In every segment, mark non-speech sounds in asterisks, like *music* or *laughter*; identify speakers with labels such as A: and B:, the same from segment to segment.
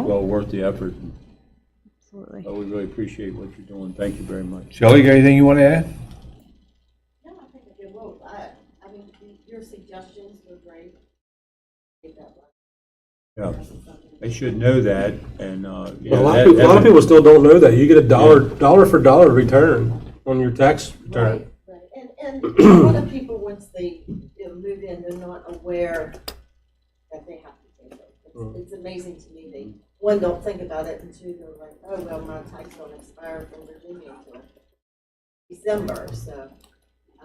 A: worth the effort.
B: Absolutely.
A: But we really appreciate what you're doing. Thank you very much.
C: Shelley, you got anything you want to add?
D: No, I think it will. I, I mean, y- your suggestions were great. Take that one.
A: Yeah,
D: That's something.
A: they should know that, and, uh. yeah,
E: But a lot
A: that-
E: of people, a lot of
A: that-
E: people still don't know that. You get a dollar, dollar for dollar return on your tax return.
D: Right, right. And, and a lot of people, once they you know, move in, they're not aware that they have to pay it. It's-
A: Mm.
D: It's amazing to me, they, one, don't think about it, and two, they're like, oh, well, my tax don't expire from Virginia until December, so. um,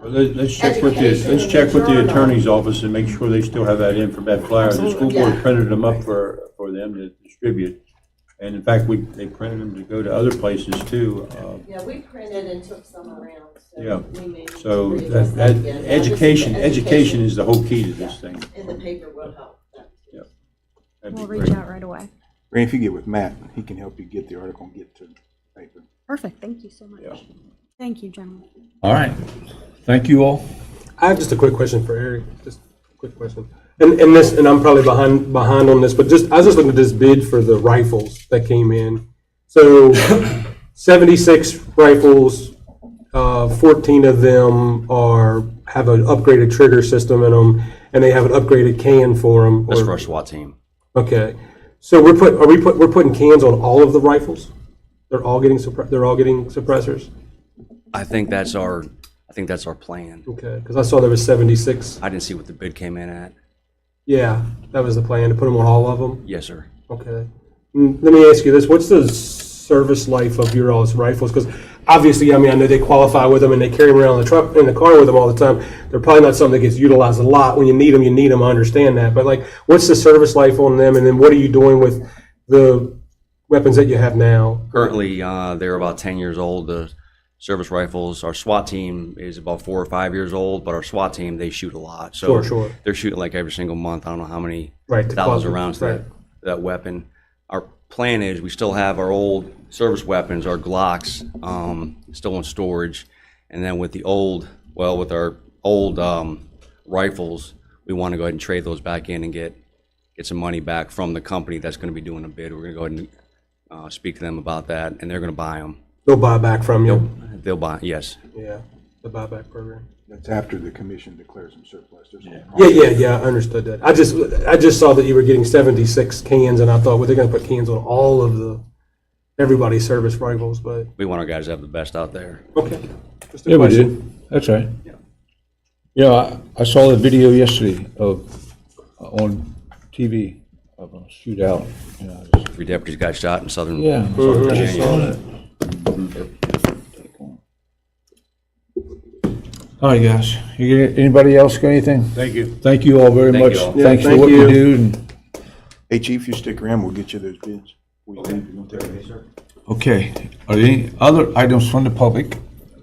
A: Well, let- Let's check with the, let's check with the attorney's office and make sure they still have that in for that flyer. The school board
D: Yeah.
A: printed them up for, for them to distribute. And in fact, we, they printed them to go to other places too. uh,
D: Yeah, we printed and took some around,
A: Yeah.
D: so we may. need to
A: So
D: readjust
A: that, that,
D: again. I just-
A: education, education is the whole key to this thing.
D: In the paper will help. that too.
A: Yeah. That'd be
B: We'll
A: great.
B: reach out right away.
F: Ray, if you get with Matt, he can help you get the article and get to the paper.
B: Perfect. Thank you so much.
A: Yeah.
B: Thank you, gentlemen.
C: All right. Thank you all.
E: I have just a quick question for Eric, just a quick question. And, and this, and I'm probably behind, behind on this, but just, I was just looking at this bid for the rifles that came in. So *coughs* seventy-six rifles, uh, fourteen of them are, have an upgraded trigger system in them, and they have an upgraded can for them.
G: That's for our SWAT team.
E: Okay, so we're put, are we put, we're putting cans on all of the rifles? They're all getting suppre, they're all getting suppressors?
G: I think that's our, I think that's our plan.
E: Okay, because I saw there was seventy-six.
G: I didn't see what the bid came in at.
E: Yeah, that was the plan, to put them on all of them?
G: Yes, sir.
E: Okay. Mm, Let me ask you this, what's the service life of your all's rifles? Because obviously, I mean, I know they qualify with them and they carry them around in the truck, in the car with them all the time. They're probably not something that gets utilized a lot. When you need them, you need them, I understand that. But like, what's the service life on them? And then what are you doing with the weapons that you have now?
G: Currently, uh, they're about ten years old, the service rifles. Our SWAT team is about four or five years old, but our SWAT team, they shoot a lot. So
E: Sure, sure.
G: They're shooting like every single month. I don't know how many
E: Right, the
G: thousands
E: quantum,
G: of rounds to that, that weapon. Our plan is we still have our old service weapons, our Glocks, um, still in storage. And then with the old, well, with our old um, rifles, we want to go ahead and trade those back in and get get some money back from the company that's going to be doing a bid. We're going to go ahead and uh, speak to them about that, and they're going to buy them.
E: They'll buy back from you?
G: They'll buy, yes.
E: Yeah, the buyback program.
F: That's after the commission declares them surplus. There's no
E: Yeah, yeah, yeah, I understood that. I just, I just saw that you were getting seventy-six cans, and I thought, well, they're gonna put cans on all of the, everybody's service rifles, but,
G: We want our guys to have the best out there.
E: okay. Just a
C: Yeah, we
E: question.
C: did. That's right. Yeah, I, I saw the video yesterday of, uh, on TV of a shootout. you know, it's-
G: Three deputies got shot in southern
C: Yeah.
G: Mm-hmm.
C: All right, guys. You, get- anybody else got anything?
A: Thank you.
C: Thank you all very
G: Thank you
C: much.
G: all.
C: Thanks for
E: thank
C: what you
E: you.
C: do. and-
F: Hey, chief, you stick around, we'll get you those bids. We leave, you don't take them.
C: Okay. Are there any other items from the public?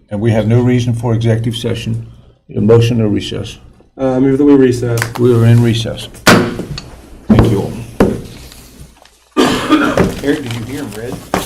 C: And we have no reason for executive session. A motion to recess.
E: Uh, move that we recess.
C: We are in recess. Thank you all.
F: Eric, did you hear him read?